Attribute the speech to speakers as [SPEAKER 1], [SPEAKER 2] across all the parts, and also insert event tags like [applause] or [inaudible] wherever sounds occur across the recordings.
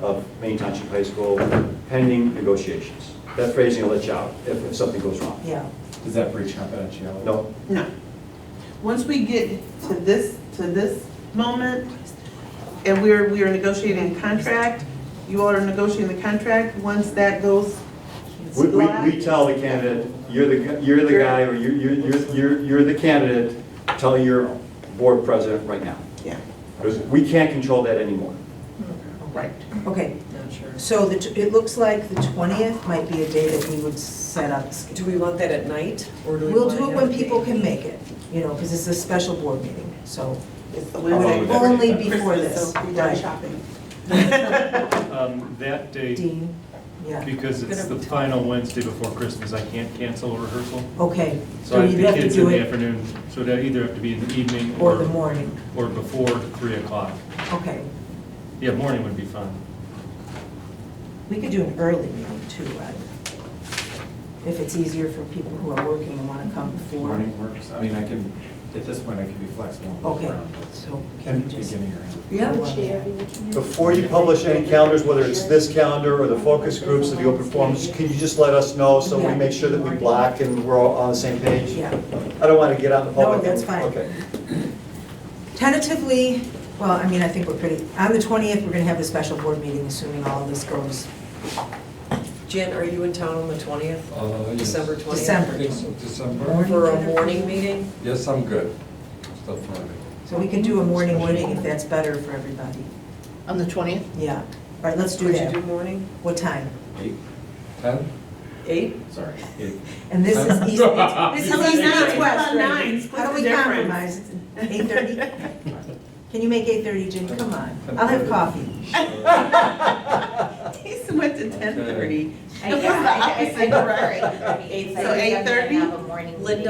[SPEAKER 1] of Main Township High School pending negotiations. That phrasing will let you out if, if something goes wrong.
[SPEAKER 2] Yeah,
[SPEAKER 3] Does that breach confidentiality?
[SPEAKER 1] No,
[SPEAKER 2] no. Once we get to this, to this moment, and we're, we are negotiating a contract, you all are negotiating the contract, once that goes.
[SPEAKER 1] we, we, we tell the candidate, you're the, gu- you're the guy, or you, you, you're, you're, you're the candidate, tell your board president right now.
[SPEAKER 2] Yeah,
[SPEAKER 1] Because we can't control that anymore.
[SPEAKER 2] right.
[SPEAKER 4] Okay,
[SPEAKER 5] Not sure.
[SPEAKER 4] so the, t- it looks like the twentieth might be a day that we would set up.
[SPEAKER 5] Do we want that at night, or do we
[SPEAKER 4] We'll
[SPEAKER 5] want
[SPEAKER 4] do it
[SPEAKER 5] have
[SPEAKER 4] when
[SPEAKER 5] a
[SPEAKER 4] people
[SPEAKER 5] date?
[SPEAKER 4] can make it, you know, because it's a special board meeting, so
[SPEAKER 2] It's the
[SPEAKER 3] How long
[SPEAKER 2] Wednesday
[SPEAKER 3] would that
[SPEAKER 4] only
[SPEAKER 3] take?
[SPEAKER 4] Oh, before
[SPEAKER 2] Christmas,
[SPEAKER 4] this.
[SPEAKER 2] so we done
[SPEAKER 4] Right.
[SPEAKER 2] shopping. [laughs]
[SPEAKER 6] Um, That date,
[SPEAKER 4] Dean, yeah,
[SPEAKER 6] because it's the final Wednesday before Christmas, I can't cancel a rehearsal.
[SPEAKER 4] okay.
[SPEAKER 6] So I
[SPEAKER 4] you'd
[SPEAKER 6] think
[SPEAKER 4] have to
[SPEAKER 6] it's
[SPEAKER 4] do
[SPEAKER 6] in the
[SPEAKER 4] it
[SPEAKER 6] afternoon, so it'd either have to be in the evening
[SPEAKER 4] Or
[SPEAKER 6] or,
[SPEAKER 4] the morning,
[SPEAKER 6] or before 3 o'clock.
[SPEAKER 4] okay.
[SPEAKER 6] Yeah, morning would be fine.
[SPEAKER 4] We could do an early meeting too, right? If it's easier for people who are working and want to come before.
[SPEAKER 3] Morning works, I mean, I can, at this point, I can be flexible. and work
[SPEAKER 4] Okay,
[SPEAKER 3] around it.
[SPEAKER 4] so can we just?
[SPEAKER 3] Beginning or end.
[SPEAKER 4] Yeah.
[SPEAKER 1] Before you publish any calendars, whether it's this calendar or the focus groups or the open forums, can you just let us know so we make sure that we block and we're all on the same page?
[SPEAKER 4] Yeah.
[SPEAKER 1] I don't want to get out in the
[SPEAKER 4] No,
[SPEAKER 1] public.
[SPEAKER 4] that's fine.
[SPEAKER 1] Okay.
[SPEAKER 4] Tentatively, well, I mean, I think we're pretty, on the 20th, we're going to have the special board meeting, assuming all of this goes
[SPEAKER 5] Jen, are you in town on the 20th,
[SPEAKER 7] Uh, yes.
[SPEAKER 5] December 20th?
[SPEAKER 4] December.
[SPEAKER 7] December?
[SPEAKER 5] For a morning meeting?
[SPEAKER 7] Yes, I'm good. Still Friday.
[SPEAKER 4] So we can do a morning meeting if that's better for everybody.
[SPEAKER 8] On the 20th?
[SPEAKER 4] Yeah. All right, let's do
[SPEAKER 5] Could you
[SPEAKER 4] that.
[SPEAKER 5] do morning?
[SPEAKER 4] What time?
[SPEAKER 3] Eight,
[SPEAKER 7] Ten?
[SPEAKER 5] Eight?
[SPEAKER 4] [laughs]
[SPEAKER 3] sorry, eight.
[SPEAKER 4] And this
[SPEAKER 5] [laughs]
[SPEAKER 4] is East, this
[SPEAKER 2] It's
[SPEAKER 4] is East
[SPEAKER 2] nine,
[SPEAKER 4] Beach
[SPEAKER 2] it's about
[SPEAKER 4] West, right?
[SPEAKER 2] nine, split
[SPEAKER 4] How do
[SPEAKER 2] the
[SPEAKER 4] we
[SPEAKER 2] difference.
[SPEAKER 4] compromise? Eight thirty? Can you make eight thirty, Jim? Come on. I'll have coffee.
[SPEAKER 2] He went to ten thirty.
[SPEAKER 8] I- I- I- I
[SPEAKER 2] [laughs]
[SPEAKER 8] [laughs] prefer it to be
[SPEAKER 2] So 8:30?
[SPEAKER 8] 8:30, I'm gonna have a morning meeting.
[SPEAKER 5] Linda?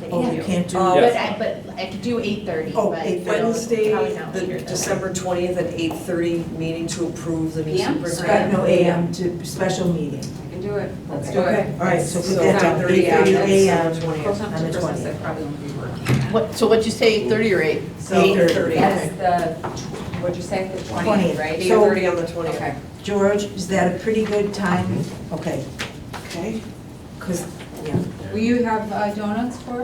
[SPEAKER 8] Yeah.
[SPEAKER 4] Oh, you can't do
[SPEAKER 5] Oh,
[SPEAKER 8] But
[SPEAKER 4] that.
[SPEAKER 8] I, but I could do 8:30,
[SPEAKER 4] Oh,
[SPEAKER 8] but.
[SPEAKER 4] 8:30.
[SPEAKER 5] Wednesday,
[SPEAKER 8] Probably not later
[SPEAKER 5] the
[SPEAKER 8] than-
[SPEAKER 5] December 20th at 8:30 meeting to approve the new
[SPEAKER 8] PM?
[SPEAKER 5] superintendent.
[SPEAKER 4] Skype, no AM to special meeting.
[SPEAKER 8] I can do it.
[SPEAKER 5] Let's do
[SPEAKER 4] Okay,
[SPEAKER 5] it.
[SPEAKER 4] all right, so put
[SPEAKER 5] So
[SPEAKER 4] that down, eight
[SPEAKER 5] 8:30
[SPEAKER 4] thirty
[SPEAKER 5] on
[SPEAKER 4] AM
[SPEAKER 5] December 20th.
[SPEAKER 4] on the twentieth.
[SPEAKER 8] probably won't be working.
[SPEAKER 9] What, so what'd you say, 30 or 8?
[SPEAKER 4] So
[SPEAKER 5] 8:30.
[SPEAKER 8] That's the, tw- what'd you say, the
[SPEAKER 4] 20th.
[SPEAKER 8] 20th, right?
[SPEAKER 4] So-
[SPEAKER 5] 8:30 on the 20th.
[SPEAKER 8] Okay.
[SPEAKER 4] George, is that a pretty good time?
[SPEAKER 10] Mm-hmm.
[SPEAKER 4] Okay,
[SPEAKER 2] Okay.
[SPEAKER 4] because, yeah.
[SPEAKER 8] Will you have uh, donuts for?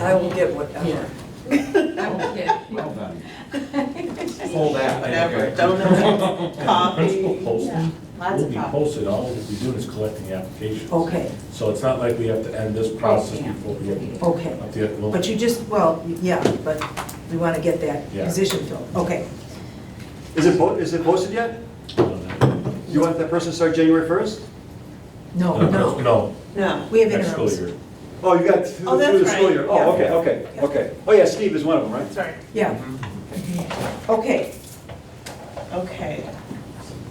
[SPEAKER 5] I will get whatever.
[SPEAKER 8] I will get.
[SPEAKER 3] Well done.
[SPEAKER 8] [laughs]
[SPEAKER 1] Hold that.
[SPEAKER 2] Whatever, donuts,
[SPEAKER 10] Principal
[SPEAKER 6] [laughs]
[SPEAKER 2] coffee.
[SPEAKER 10] posting
[SPEAKER 8] Lots
[SPEAKER 10] will
[SPEAKER 8] of
[SPEAKER 10] be
[SPEAKER 8] coffee.
[SPEAKER 10] posted, all we're doing is collecting applications.
[SPEAKER 4] Okay,
[SPEAKER 10] So it's not like we have to end this process
[SPEAKER 8] Yeah.
[SPEAKER 10] before we get up
[SPEAKER 4] okay.
[SPEAKER 10] to the.
[SPEAKER 4] But you just, well, yeah, but we want to get that
[SPEAKER 10] Yeah.
[SPEAKER 4] position filled. Okay,
[SPEAKER 1] Is it, po- is it posted yet? You want that person to start January 1st?
[SPEAKER 4] Oh, no, no.
[SPEAKER 10] No,
[SPEAKER 2] No.
[SPEAKER 4] We have
[SPEAKER 10] next school
[SPEAKER 4] interims.
[SPEAKER 10] year.
[SPEAKER 1] Oh, you got through
[SPEAKER 2] Oh, that's
[SPEAKER 1] through the school
[SPEAKER 2] right.
[SPEAKER 1] year?
[SPEAKER 2] Yeah.
[SPEAKER 1] Oh, okay, okay,
[SPEAKER 4] Yeah.
[SPEAKER 1] okay. Oh, yeah, Steve is one of them, right?
[SPEAKER 2] Sorry.
[SPEAKER 4] Yeah. Okay,
[SPEAKER 2] Okay,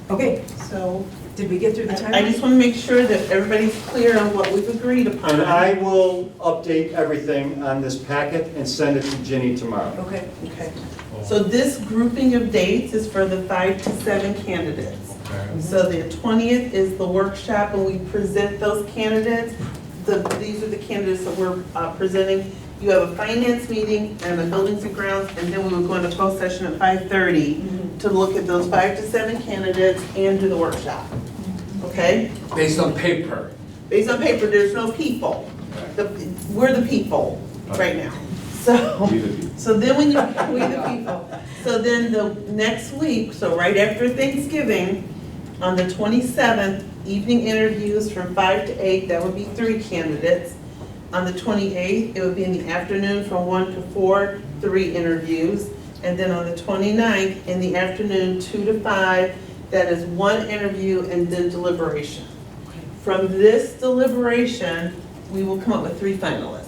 [SPEAKER 4] okay.
[SPEAKER 2] so
[SPEAKER 4] Did we get through the time?
[SPEAKER 2] I just want to make sure that everybody's clear on what we've agreed upon.
[SPEAKER 1] And I will update everything on this packet and send it to Ginny tomorrow.
[SPEAKER 4] Okay,
[SPEAKER 2] Okay. So this grouping of dates is for the five to seven candidates. So the twentieth is the workshop when we present those candidates. The, these are the candidates that we're uh, presenting. You have a finance meeting and the buildings and grounds, and then we would go into closed session at five thirty to look at those five to seven candidates and do the workshop. Okay?
[SPEAKER 7] Based on paper.
[SPEAKER 2] Based on paper, there's no people. The, we're the people right now. So.
[SPEAKER 3] We the people.
[SPEAKER 2] So then when you, we the people, so then the next week, so right after Thanksgiving, on the twenty-seventh, evening interviews from five to eight, that would be three candidates. On the twenty-eighth, it would be in the afternoon from one to four, three interviews. And then on the 29th in the afternoon, two to five, that is one interview and then deliberation. From this deliberation, we will come up with three finalists.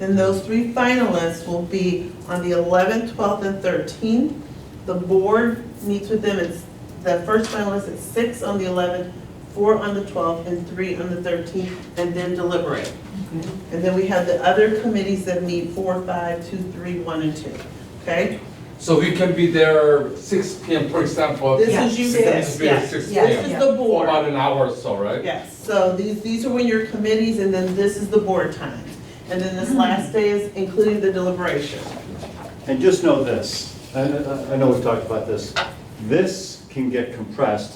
[SPEAKER 2] Then those three finalists will be on the 11th, 12th, and 13th. The board meets with them, it's, the first finalist is six on the 11th, four on the 12th, and three on the 13th, and then deliberate. And then we have the other committees that meet four, five, two, three, one, and two, okay?
[SPEAKER 7] So we can be there six P M, for example.
[SPEAKER 2] This
[SPEAKER 4] Yeah.
[SPEAKER 2] is you
[SPEAKER 7] This
[SPEAKER 2] guys,
[SPEAKER 7] is there
[SPEAKER 2] yes,
[SPEAKER 7] six P
[SPEAKER 2] this
[SPEAKER 7] M.
[SPEAKER 2] is the board.
[SPEAKER 7] About an hour or so, right?
[SPEAKER 2] Yes, so these, these are when your committees, and then this is the board time. And then this last day is including the deliberation.
[SPEAKER 1] And just know this, I I- I know we've talked about this, this can get compressed